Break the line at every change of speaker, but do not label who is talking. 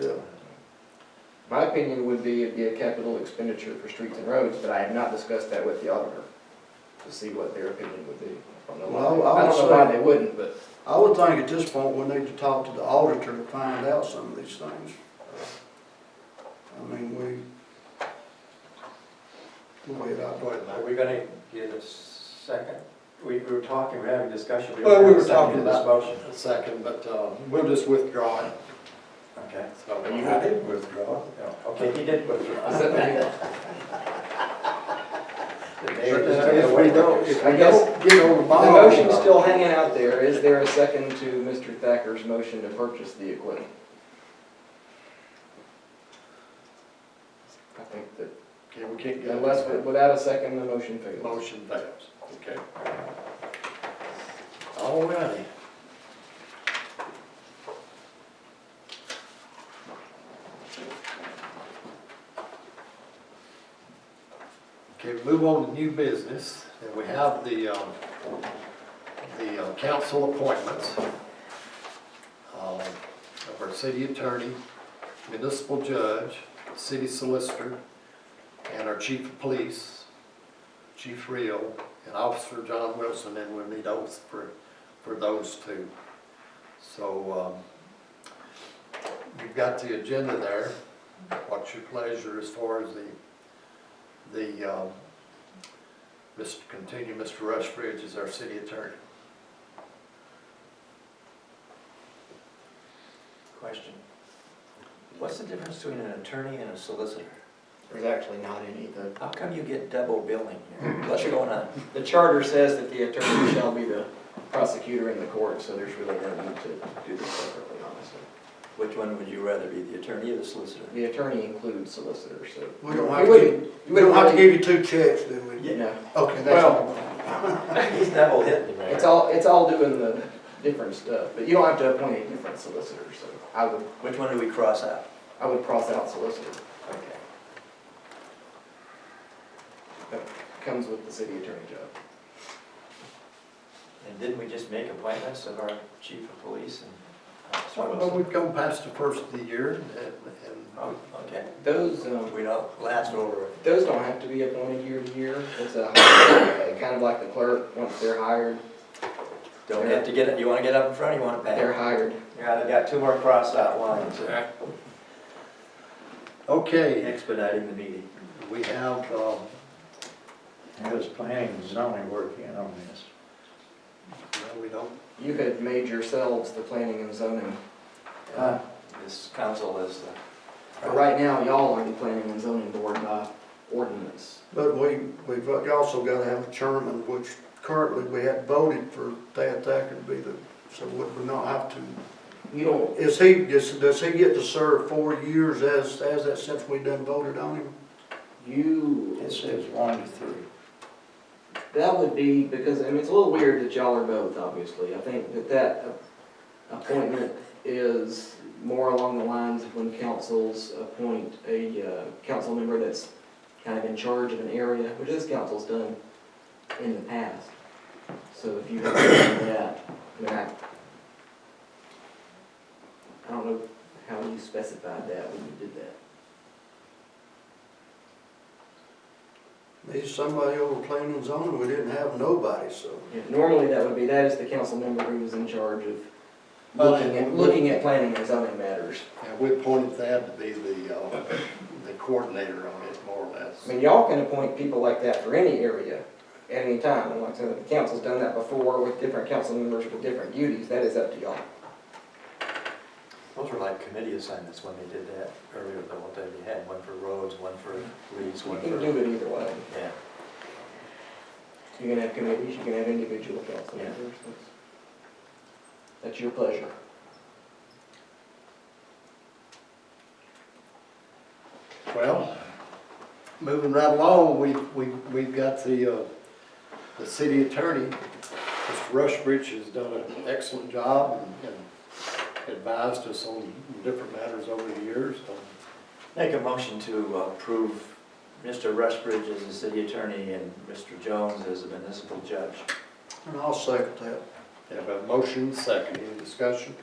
Yeah.
My opinion would be it'd be a capital expenditure for streets and roads, but I have not discussed that with the auditor to see what their opinion would be. I don't know why,
Well, I
I
would
don't know why
say-
they wouldn't, but
I would think at this point, we need to talk to the auditor to find out some of these things. I mean, we, the way it operates.
Are we gonna get a second? We, we were talking, we we're having a discussion. don't
Well, we
have a
were
second
talking
to this
about
motion.
a second, but uh, we'll just withdraw it.
Okay,
So
You
I did withdraw.
yeah, okay, he did withdraw.
Is that the-
The mayor just took it
If we
away.
don't, if
I
we
guess
don't get over the
the
bond.
motion's still hanging out there. Is there a second to Mr. Thacker's motion to purchase the equipment? I think that
Okay, we can't get.
unless, without a second, the motion fails.
Motion fails, okay. All righty. Okay, we move on to new business, and we have the, um, the uh, council appointments um, of our city attorney, municipal judge, city solicitor, and our chief of police, Chief Rio, and Officer John Wilson, and we'll need oaths for, for those two. So, um, you've got the agenda there. What's your pleasure as far as the, the, um, Mr., continue, Mr. Rushbridge is our city attorney.
Question.
What's the difference between an attorney and a solicitor?
There's actually not any. The,
How come you get double billing here? What's going on?
the charter says that the attorney shall be the prosecutor in the court, so there's really no need to do this separately, honestly.
Which one would you rather be, the attorney or the solicitor?
The attorney includes solicitor, so.
We don't
You
have
wouldn't-
to,
you
we don't
wouldn't
have to
really-
give you two checks, do we?
No,
Okay, that's.
Well- He's double hitting me.
it's all, it's all doing the different stuff, but you don't have to appoint a different solicitor, so I would,
Which one do we cross out?
I would cross out solicitor.
Okay.
That comes with the city attorney job.
And didn't we just make appointments of our chief of police and Officer
Well,
Wilson?
we've come past the first of the year, and, and
Oh, okay.
Those, um,
We don't last over.
Those don't have to be appointed year to year. It's a, uh, kind of like the clerk, once they're hired,
Don't have to get it, you wanna get up in front, you wanna
they're
pay?
hired.
Yeah, they've got two more cross out lines,
Okay,
expediting the meeting.
we have, um,
How does planning and zoning work in on this?
no, we don't,
You had made yourselves the planning and zoning.
Uh, This council is the
But right now, y'all are the planning and zoning board by ordinance.
But we, we've also gotta have a chairman, which currently we had voted for Thad Thacker to be the, so would we not have to?
You don't,
Is he, does, does he get to serve four years as, as that since we done voted on him?
you,
It says one to three.
that would be, because, I mean, it's a little weird that y'all are both, obviously. I think that that appointment is more along the lines of when councils appoint a, uh, council member that's kind of in charge of an area, which this council's done in the past. So if you have done that, I mean, I, I don't know how you specified that when you did that.
He's somebody over planning and zoning, we didn't have nobody, so.
Yeah, Normally, that would be, that is the council member who was in charge of
Well,
looking at,
and-
looking at planning and zoning matters.
and we appointed Thad to be the, uh, the coordinator on it, more or less.
I mean, y'all can appoint people like that for any area at any time. And like I said, the council's done that before with different council members with different duties. That is up to y'all.
Those were like committee assignments when they did that earlier, the one time you had, one for roads, one for police,
You
one
can
for,
do it either way.
yeah.
You can have committees, you can have individual council
Yeah.
members. That's- That's your pleasure.
Well, moving right along, we, we, we've got the, uh, the city attorney, Mr. Rushbridge has done an excellent job and and advised us on different matters over the years. Um,
Make a motion to approve Mr. Rushbridge as the city attorney and Mr. Jones as the municipal judge.
And I'll second that.
Have a motion, second, any discussion?